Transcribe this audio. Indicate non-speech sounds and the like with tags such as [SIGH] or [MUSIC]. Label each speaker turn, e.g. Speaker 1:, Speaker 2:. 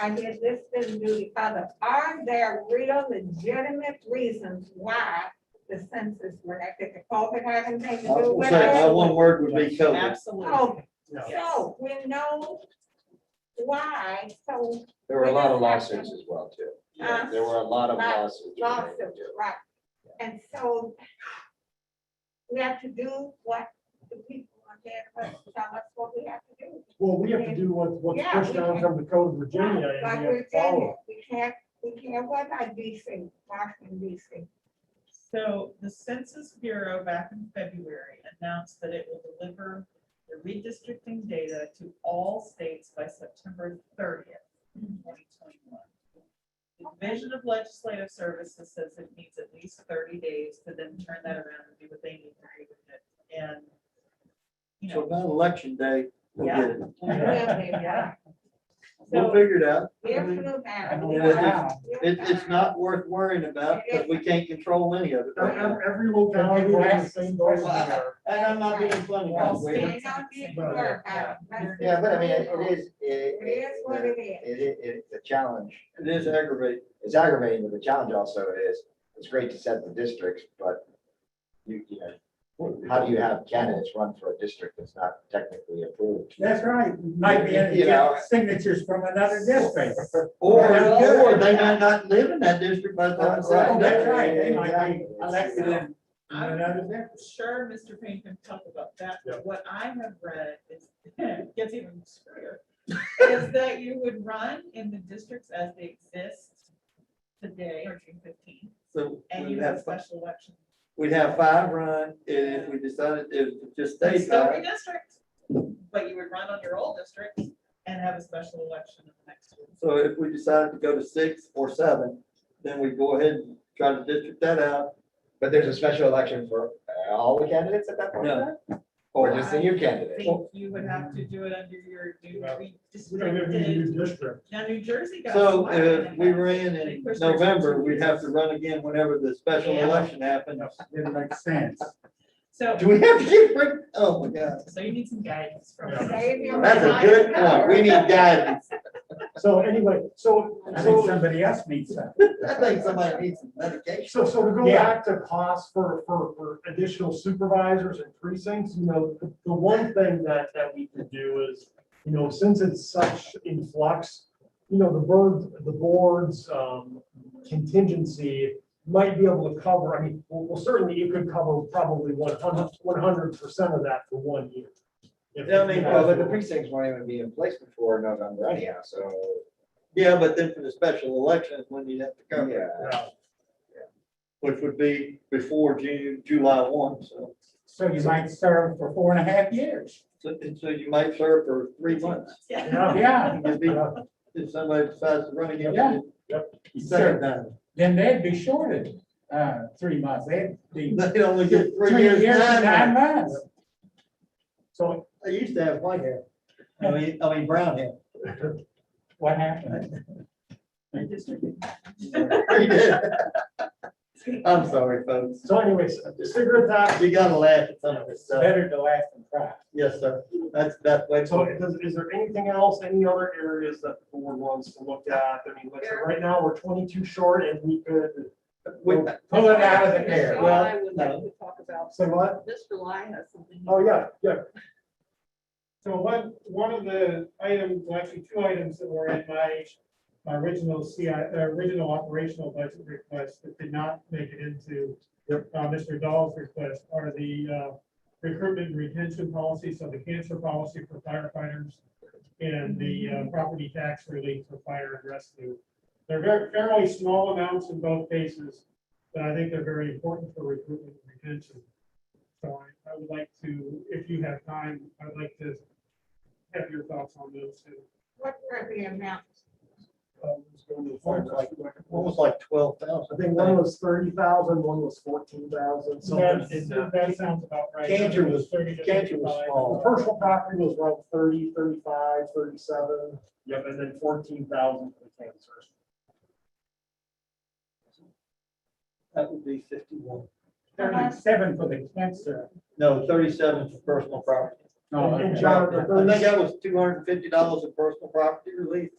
Speaker 1: I did this, this, and do the other. Are there real legitimate reasons why the census went out? Did the COVID have anything to
Speaker 2: I was
Speaker 1: do
Speaker 2: gonna
Speaker 1: with
Speaker 2: say, my one
Speaker 1: it?
Speaker 2: word would be COVID.
Speaker 3: Absolutely.
Speaker 1: Oh,
Speaker 3: Yes.
Speaker 1: so we know why, so
Speaker 2: There were a lot of lawsuits as well, too.
Speaker 1: Huh?
Speaker 2: There were a lot of
Speaker 1: Lot-
Speaker 2: lawsuits.
Speaker 1: lawsuit, right? And so we have to do what the people on there, tell us what we have to do.
Speaker 4: Well, we have to do what, what's
Speaker 1: Yeah,
Speaker 4: pushed
Speaker 1: we
Speaker 4: down
Speaker 1: can-
Speaker 4: from the code of Virginia
Speaker 1: Like
Speaker 4: and we have
Speaker 1: we're
Speaker 4: to follow.
Speaker 1: saying, we can't, we can't, what about DC, Washington DC?
Speaker 3: So the Census Bureau back in February announced that it will deliver the redistricting data to all states by September thirtieth, twenty twenty-one. The Division of Legislative Services says it needs at least thirty days to then turn that around and do what they need to do with it. And, you
Speaker 2: So
Speaker 3: know,
Speaker 2: about election day, we'll
Speaker 3: Yeah.
Speaker 2: get it.
Speaker 3: Yeah.
Speaker 2: We'll
Speaker 3: so,
Speaker 2: figure it out. It,
Speaker 1: It,
Speaker 2: it's not worth worrying about because we can't control any of it.
Speaker 4: Ev- ev- Every locality will have the same goals we are.
Speaker 2: And I'm not being funny.
Speaker 3: Well,
Speaker 2: Bob.
Speaker 3: see,
Speaker 5: uh, Yeah, but I mean, it it is, it,
Speaker 1: It is what
Speaker 5: it,
Speaker 1: it is.
Speaker 5: it, it- it's a challenge.
Speaker 2: It is aggravating.
Speaker 5: It's aggravating, but the challenge also is, it's great to set the districts, but you, you know, how do you have candidates run for a district that's not technically approved?
Speaker 6: That's right, might be,
Speaker 5: You know.
Speaker 6: get signatures from another district.
Speaker 2: Or,
Speaker 6: Yeah.
Speaker 2: or they might not live in that district by the time. it's
Speaker 6: Oh,
Speaker 5: Right.
Speaker 6: That's
Speaker 2: done.
Speaker 6: right, they might be
Speaker 5: Exactly.
Speaker 6: elected in another district.
Speaker 3: sure, Mr. Payne can talk about that, but what I have read is, [LAUGHS] gets even screwier. Is that you would run in the districts as they exist today, or June fifteenth,
Speaker 2: So
Speaker 3: and
Speaker 2: we'd
Speaker 3: you have a
Speaker 2: have, fi-
Speaker 3: special election.
Speaker 2: we'd have five run and if we decided it just
Speaker 3: You
Speaker 2: stays
Speaker 3: Still
Speaker 2: five.
Speaker 3: redistrict, but you would run on your old district and have a special election in the next year.
Speaker 2: So if we decided to go to six or seven, then we go ahead and try to district that out.
Speaker 5: But there's a special election for uh, all the candidates at that point, in time? or just the new
Speaker 3: I
Speaker 5: candidate?
Speaker 3: think you would have to do it under your new
Speaker 4: Well, We don't have any
Speaker 3: redistricted.
Speaker 4: new district.
Speaker 3: Now, New Jersey got.
Speaker 2: So
Speaker 3: slapped
Speaker 2: if
Speaker 3: in
Speaker 2: we
Speaker 3: that.
Speaker 2: ran
Speaker 3: They
Speaker 2: in
Speaker 3: pushed theirs for
Speaker 2: November,
Speaker 3: two
Speaker 2: we'd have to
Speaker 3: years.
Speaker 2: run again whenever the special
Speaker 3: Yeah.
Speaker 2: election happens.
Speaker 6: It makes sense.
Speaker 3: So,
Speaker 2: Do we have to get rid, oh my God.
Speaker 3: so you need some guidance from.
Speaker 4: Yeah.
Speaker 3: us.
Speaker 2: That's a good point. We need guidance.
Speaker 4: So anyway, so,
Speaker 6: I think
Speaker 4: so,
Speaker 6: somebody else needs that.
Speaker 2: I think somebody needs some medication.
Speaker 4: so, so to go
Speaker 6: Yeah.
Speaker 4: back to costs for, for, for additional supervisors and precincts, you know, the- the one thing that, that we could do is, you know, since it's such in flux, you know, the board, the board's, um, contingency might be able to cover, I mean, well, well, certainly you could cover probably one hundred, one hundred percent of that for one year. If-
Speaker 2: Yeah, I mean,
Speaker 5: Well, but the precincts won't even be in place before November anyhow, so,
Speaker 2: Yeah, but then for the special election is when you'd have to cover, it,
Speaker 5: yeah.
Speaker 4: Yeah.
Speaker 2: which would be before June, July one, so.
Speaker 6: So you might serve for four and a half years.
Speaker 2: So, and so you might serve for three months.
Speaker 3: Yeah.
Speaker 4: Yeah.
Speaker 6: Yeah,
Speaker 2: It'd be- If somebody decides to run
Speaker 6: Yeah.
Speaker 2: again.
Speaker 6: Sure.
Speaker 2: Second time.
Speaker 6: then they'd be shorted, uh, three months, they'd be
Speaker 2: They only get three
Speaker 6: three years
Speaker 2: years.
Speaker 6: and nine
Speaker 2: time.
Speaker 6: months.
Speaker 4: So,
Speaker 2: They used to have white hair. I mean, I mean, brown hair.
Speaker 6: What happened?
Speaker 2: They did. I'm sorry, folks.
Speaker 4: so anyways, cigarette tax,
Speaker 2: You gotta laugh at some of this stuff.
Speaker 6: uh, Better to laugh than cry.
Speaker 2: Yes, sir. That's, that's way.
Speaker 4: so is, is there anything else, any other areas that the board wants to look at? I mean, like, so right now, we're twenty-two short and we could,
Speaker 2: We-
Speaker 6: Pull it out of the air.
Speaker 2: Well,
Speaker 7: I would like to talk about,
Speaker 4: say what?
Speaker 7: Mr. Lyon has something. he
Speaker 4: Oh, yeah, yeah.
Speaker 8: So one, one of the items, well, actually two items that were in my, my original CI, uh, original operational budget request that did not make it into uh, Mr. Dahl's request are the uh, recruitment and retention policy, so the cancer policy for firefighters and the uh, property tax relief for fire and rescue. They're very fairly small amounts in both cases, but I think they're very important for recruitment and retention. So I, I would like to, if you have time, I'd like to have your thoughts on those two.
Speaker 1: What were the amounts?
Speaker 2: Almost like twelve thousand.
Speaker 4: I think one was thirty thousand, one was fourteen thousand, so.
Speaker 8: That's-
Speaker 4: it's- uh,
Speaker 8: That sounds about right.
Speaker 2: uh, Cantor was-
Speaker 8: Thirty to
Speaker 2: Cantor was
Speaker 8: 35.
Speaker 2: small.
Speaker 4: The personal property was around thirty, thirty-five, thirty-seven. Yep, and then fourteen thousand for the cancer.
Speaker 2: That would be fifty-one.
Speaker 6: Thirty-seven for the cancer.
Speaker 2: No, thirty-seven for personal property.
Speaker 6: No,
Speaker 4: And
Speaker 6: okay.
Speaker 4: John,
Speaker 2: I think that was two hundred and fifty dollars of personal property relief.